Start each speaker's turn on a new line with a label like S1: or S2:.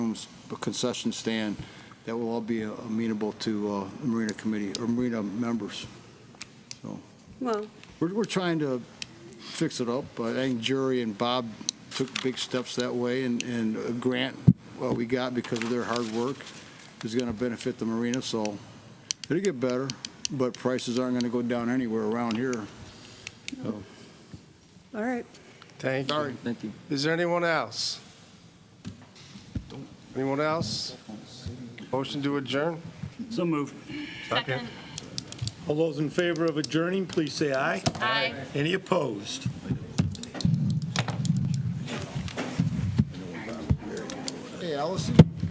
S1: a concession stand that will all be amenable to uh, Marina Committee, or Marina members.
S2: Well,
S1: We're, we're trying to fix it up, but I think Jerry and Bob took big steps that way, and, and a grant, what we got because of their hard work, is gonna benefit the marina, so it'll get better, but prices aren't gonna go down anywhere around here.
S2: all right.
S3: Thank
S1: Sorry.
S3: you.
S4: Thank you.
S3: Is there anyone else? Anyone else? Motion to adjourn?
S5: So moved.
S6: Second.
S7: All those in favor of adjourning, please say aye.
S6: Aye.
S7: Any opposed?
S1: Hey, Allison?